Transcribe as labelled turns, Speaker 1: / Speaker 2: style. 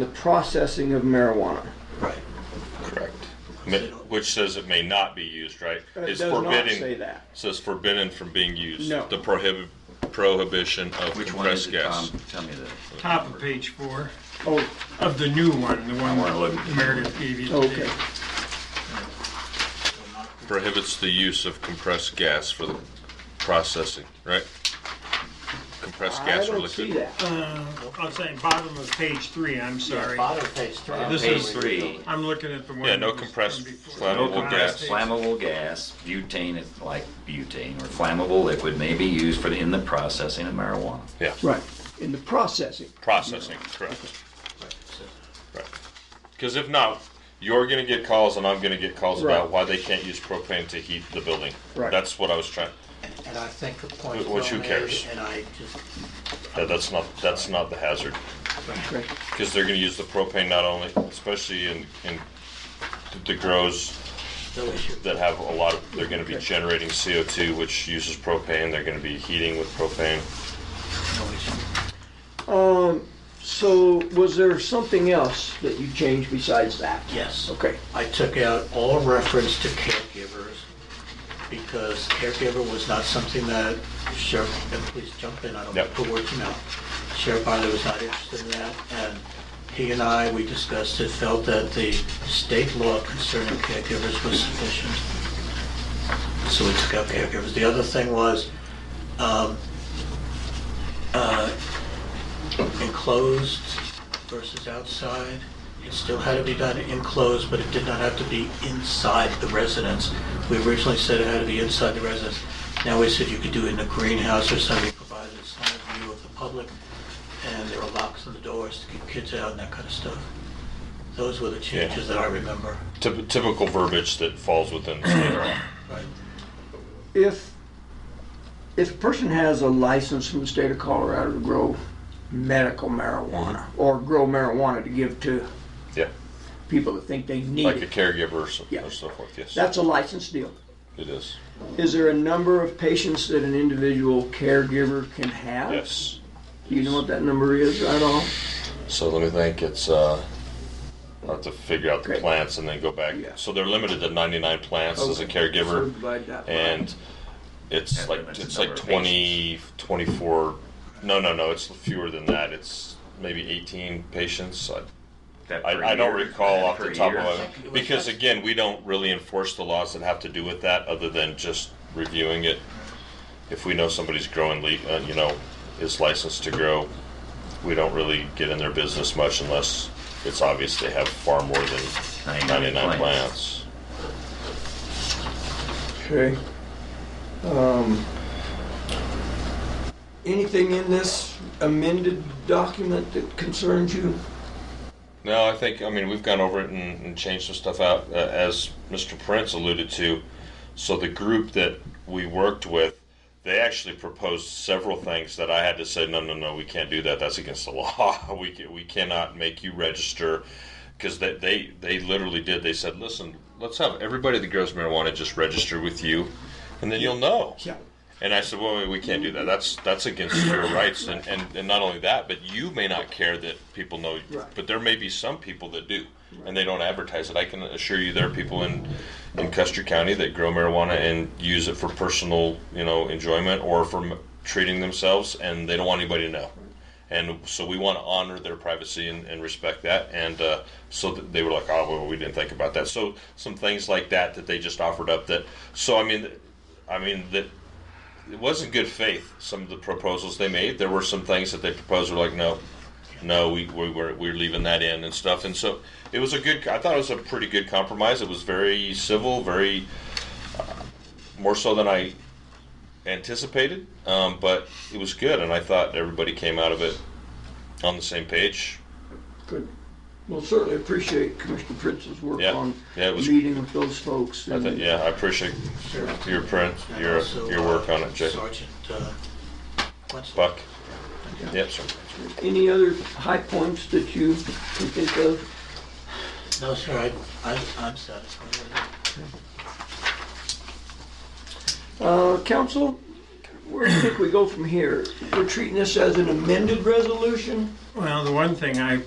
Speaker 1: the processing of marijuana.
Speaker 2: Right.
Speaker 3: Correct. Mi- Which says it may not be used, right?
Speaker 1: It
Speaker 3: It's
Speaker 1: does not
Speaker 3: forbidden-
Speaker 1: say that.
Speaker 3: Says forbidden from being used.
Speaker 1: No.
Speaker 3: The prohibit, prohibition of
Speaker 2: Which one is
Speaker 3: compressed
Speaker 2: it, Tom?
Speaker 3: gas.
Speaker 2: Tell me that.
Speaker 4: Top of page four
Speaker 1: Oh,
Speaker 4: of the new one, the one
Speaker 2: I wanna look at
Speaker 4: that Meredith gave you today.
Speaker 1: okay.
Speaker 3: Prohibits the use of compressed gas for the processing, right? Compressed
Speaker 1: I
Speaker 3: gas or
Speaker 1: don't see
Speaker 3: liquid.
Speaker 1: that.
Speaker 4: Uh, I'm saying bottom of page three, I'm sorry.
Speaker 5: Bottom of page three.
Speaker 4: This
Speaker 2: Page
Speaker 4: is-
Speaker 2: three,
Speaker 4: I'm looking at the one.
Speaker 3: Yeah, no
Speaker 4: that was
Speaker 3: compressed
Speaker 4: from before.
Speaker 3: flammable
Speaker 4: No
Speaker 3: gas.
Speaker 4: compressed-
Speaker 2: flammable gas, butane is like butane, or flammable liquid may be used for the, in the processing of marijuana.
Speaker 3: Yeah,
Speaker 1: Right, in the processing.
Speaker 3: processing, correct. Right. Because if not, you're gonna get calls and I'm gonna get calls about
Speaker 1: Right.
Speaker 3: why they can't use propane to heat the building.
Speaker 1: Right.
Speaker 3: That's what I was trying,
Speaker 5: And I think the point
Speaker 3: Well,
Speaker 5: well
Speaker 3: who cares?
Speaker 5: made, and I just,
Speaker 3: that- that's not, that's not the hazard.
Speaker 1: Okay.
Speaker 3: because they're going to use the propane not only, especially in, in the grows
Speaker 5: no issue.
Speaker 3: that have a lot of, they're going to be generating CO2, which uses propane. They're going to be heating with propane.
Speaker 5: No issue.
Speaker 1: So was there something else that you changed besides that?
Speaker 5: Yes.
Speaker 1: Okay,
Speaker 5: I took out all reference to caregivers because caregiver was not something that sheriff, and please jump in, I don't want
Speaker 3: Yep.
Speaker 5: to put words in your mouth. Sheriff Byler was not interested in that, and he and I, we discussed it, felt that the state law concerning caregivers was sufficient. So we took out caregivers. The other thing was, um, uh, enclosed versus outside. It still had to be done enclosed, but it did not have to be inside the residence. We originally said it had to be inside the residence. Now we said you could do it in a greenhouse or something, provided it's not a view of the public, and there are locks on the doors to keep kids out and that kind of stuff. Those were the changes that I remember.
Speaker 3: Typ- typical verbiage that falls within the state law.
Speaker 5: Right.
Speaker 1: if, if a person has a license from the state of Colorado to grow medical marijuana
Speaker 3: Mm-hmm.
Speaker 1: or grow marijuana to give to
Speaker 3: Yeah,
Speaker 1: people that think they need
Speaker 3: like a
Speaker 1: it,
Speaker 3: caregiver or so,
Speaker 1: Yeah.
Speaker 3: or so forth. Yes,
Speaker 1: that's a license deal.
Speaker 3: it is.
Speaker 1: Is there a number of patients that an individual caregiver can have?
Speaker 3: Yes.
Speaker 1: Do you know what that number is at all?
Speaker 3: So let me think. It's uh, I have to figure out the
Speaker 1: Okay.
Speaker 3: plants and then go back.
Speaker 1: Yeah.
Speaker 3: So they're limited to 99 plants as a
Speaker 1: Okay. So
Speaker 3: caregiver.
Speaker 1: divide that by-
Speaker 3: and it's
Speaker 2: And
Speaker 3: like
Speaker 2: limits the
Speaker 3: it's
Speaker 2: number
Speaker 3: like
Speaker 2: of
Speaker 3: 20 24 no no no it's fewer than that it's maybe 18 patients i,
Speaker 2: That per
Speaker 3: I, I don't
Speaker 2: year-
Speaker 3: recall
Speaker 2: that
Speaker 3: off
Speaker 2: per
Speaker 3: the top
Speaker 2: year.
Speaker 3: of it because again we don't really enforce the laws that have to do with that other than just reviewing it if we know somebody's growing le- uh, you know is licensed to grow we don't really get in their business much unless it's obvious they have far more than
Speaker 2: 99
Speaker 3: 99 plants,
Speaker 2: plants.
Speaker 1: Okay. Um, Anything in this amended document that concerns you?
Speaker 3: No, I think, I mean, we've gone over it and, and changed some stuff out, uh, as Mr. Prince alluded to. So the group that we worked with, they actually proposed several things that I had to say, no, no, no, we can't do that. That's against the law. We, ca- we cannot make you register. Because they, they, they literally did. They said, listen, let's have everybody that grows marijuana just register with you, and then you'll know.
Speaker 1: Yeah.
Speaker 3: And I said, well, we can't do that. That's that's against your rights. And, and, and not only that, but you may not care that people know,
Speaker 1: Right.
Speaker 3: but there may be some people that do, and they don't advertise it. I can assure you there are people in, in Custer County that grow marijuana and use it for personal, you know, enjoyment or for m- treating themselves, and they don't want anybody to know. And so we want to honor their privacy and, and respect that. And uh, so th- they were like, oh, well, we didn't think about that. So some things like that that they just offered up that, so I mean, I mean, that it wasn't good faith. Some of the proposals they made, there were some things that they proposed were like, no, no, we, we were we're leaving that in and stuff. And so it was a good. I thought it was a pretty good compromise. It was very civil, very uh, more so than I anticipated, um, but it was good. And I thought everybody came out of it on the same page.
Speaker 1: Good. Well, certainly appreciate Commissioner Prince's work
Speaker 3: Yeah.
Speaker 1: on
Speaker 3: Yeah, it was-
Speaker 1: meeting with those folks.
Speaker 3: I thought,
Speaker 1: and-
Speaker 3: yeah, I appreciate your print,
Speaker 5: And
Speaker 3: your
Speaker 5: also,
Speaker 3: your work on it, Jake.
Speaker 5: Sergeant, uh, Wenzel.
Speaker 3: Buck. Yep, sir.
Speaker 1: Any other high points that you can think of?
Speaker 5: No, sir, I, I- I'm satisfied with it.
Speaker 1: Uh, Council, where do you think we go from here? We're treating this as an amended resolution?
Speaker 4: Well, the one thing I,